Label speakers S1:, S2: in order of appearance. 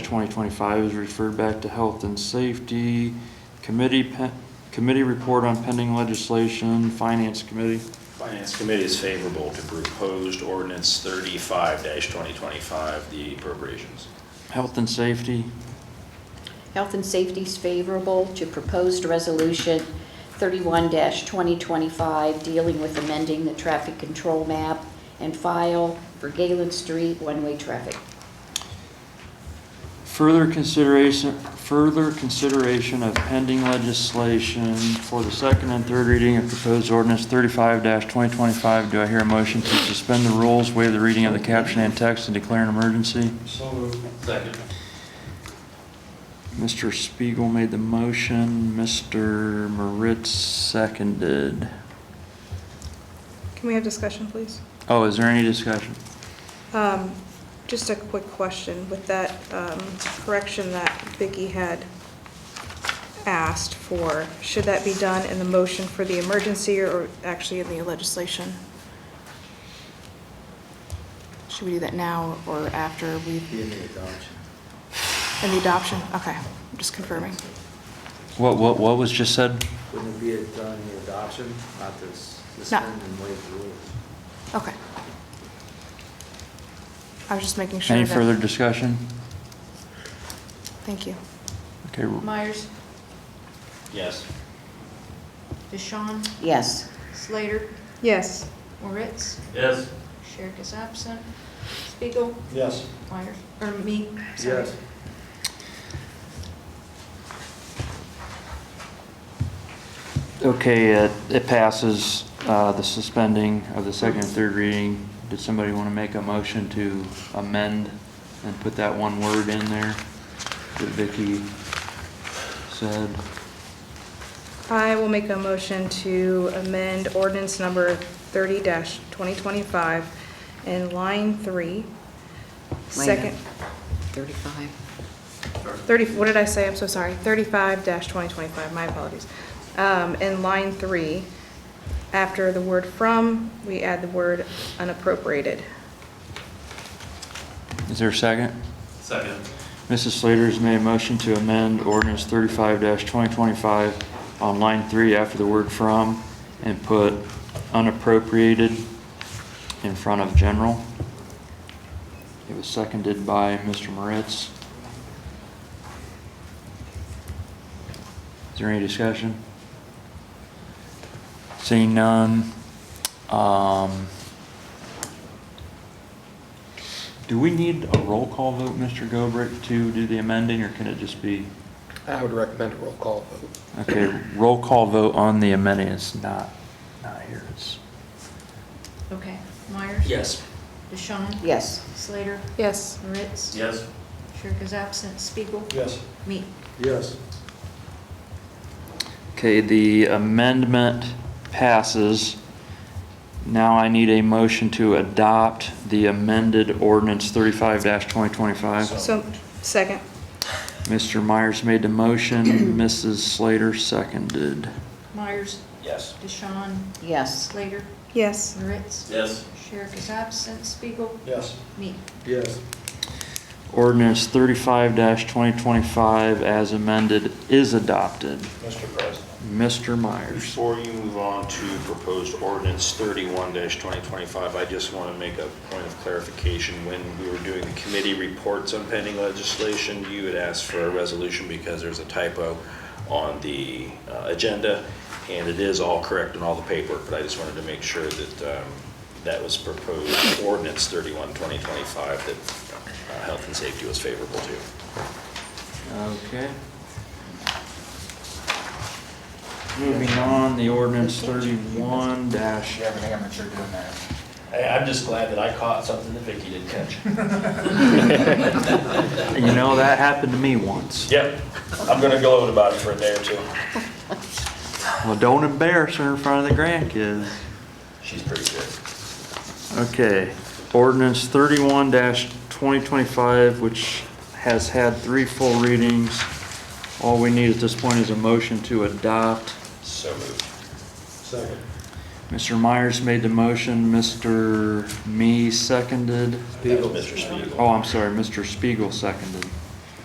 S1: twenty-twenty-five is referred back to Health and Safety Committee, pe- Committee Report on Pending Legislation, Finance Committee.
S2: Finance Committee is favorable to proposed ordinance thirty-five twenty twenty-five, the appropriations.
S1: Health and Safety,
S3: Health and safety is favorable to proposed resolution 31-2025 dealing with amending the traffic control map and file for Galen Street one-way traffic.
S1: Further consideration, further consideration of pending legislation for the second and third reading of proposed ordinance thirty-five twenty twenty-five. Do I hear a motion to suspend the rules, waive the reading of the caption and text, and declare an emergency?
S4: So moved.
S2: Second.
S1: Mr. Spiegel made the motion, Mr. Moritz seconded.
S5: Can we have discussion, please?
S1: Oh, is there any discussion?
S5: Um, Just a quick question with that um, correction that Vicki had asked for. Should that be done in the motion for the emergency or actually in the legislation? Should we do that now or after we,
S4: Be in the adoption.
S5: in the adoption? Okay, I'm just confirming.
S1: What, what, what was just said?
S4: Wouldn't it be a- done in the adoption, not to s- suspend and waive the rules?
S5: Okay. I was just making sure
S1: Any
S5: that-
S1: further discussion?
S5: Thank you.
S1: Okay,
S6: Myers,
S2: Yes.
S6: Deshawn,
S3: Yes.
S6: Slater,
S5: Yes.
S6: Moritz,
S2: Yes.
S6: Sherrick is absent, Spiegel,
S4: Yes.
S6: Myers, or me, sorry.
S4: Yes.
S1: Okay, it, it passes, uh, the suspending of the second and third reading. Did somebody want to make a motion to amend and put that one word in there that Vicky said?
S5: I will make a motion to amend ordinance number thirty twenty twenty-five in line three. Second,
S3: 35.
S5: thirty, what did I say? I'm so sorry. Thirty-five twenty twenty-five, my apologies. Um, in line three, after the word from, we add the word unappropriated.
S1: Is there a second?
S2: Second.
S1: Mrs. Slater has made a motion to amend ordinance thirty-five twenty twenty-five on line three after the word from and put unappropriated in front of general. It was seconded by Mr. Moritz. Is there any discussion? Seeing none, um, do we need a roll call vote, Mr. Gobrick, to do the amending, or can it just be?
S7: I would recommend a roll call vote.
S1: Okay, roll call vote on the amending is not, not here, it's,
S6: Okay, Myers.
S2: Yes.
S6: Deshawn,
S3: Yes.
S6: Slater,
S5: Yes.
S6: Moritz.
S2: Yes.
S6: Sherrick is absent, Spiegel,
S4: Yes.
S6: me.
S4: Yes.
S1: okay, the amendment passes. Now I need a motion to adopt the amended ordinance thirty-five twenty twenty-five.
S5: So, second.
S1: Mr. Myers made the motion, Mrs. Slater seconded.
S6: Myers,
S2: Yes.
S6: Deshawn,
S3: Yes.
S6: Slater,
S5: Yes.
S6: Moritz.
S2: Yes.
S6: Sherrick is absent, Spiegel,
S4: Yes.
S6: me.
S4: Yes.
S1: Ordinance thirty-five twenty twenty-five as amended is adopted.
S2: Mr. President.
S1: Mr. Myers.
S2: Before you move on to proposed ordinance thirty-one twenty twenty-five, I just want to make a point of clarification. When we were doing the committee reports on pending legislation, you had asked for a resolution because there's a typo on the uh, agenda, and it is all correct in all the paperwork, but I just wanted to make sure that um, that was proposed ordinance thirty-one twenty twenty-five that uh, health and safety was favorable to.
S1: Okay. Moving on, the ordinance thirty-one dash,
S8: Yeah, but I got mature doing that.
S2: I'm just glad that I caught something that Vicky didn't catch.
S1: you know, that happened to me once.
S2: Yep, I'm gonna gloat about it for a day or two.
S1: Well, don't embarrass her in front of the grandkids.
S2: She's pretty good.
S1: Okay, ordinance thirty-one twenty twenty-five, which has had three full readings. All we need at this point is a motion to adopt.
S2: So moved.
S4: Second.
S1: Mr. Myers made the motion, Mr. Me seconded.
S2: That was Mr. Spiegel.
S1: Oh, I'm sorry, Mr. Spiegel seconded.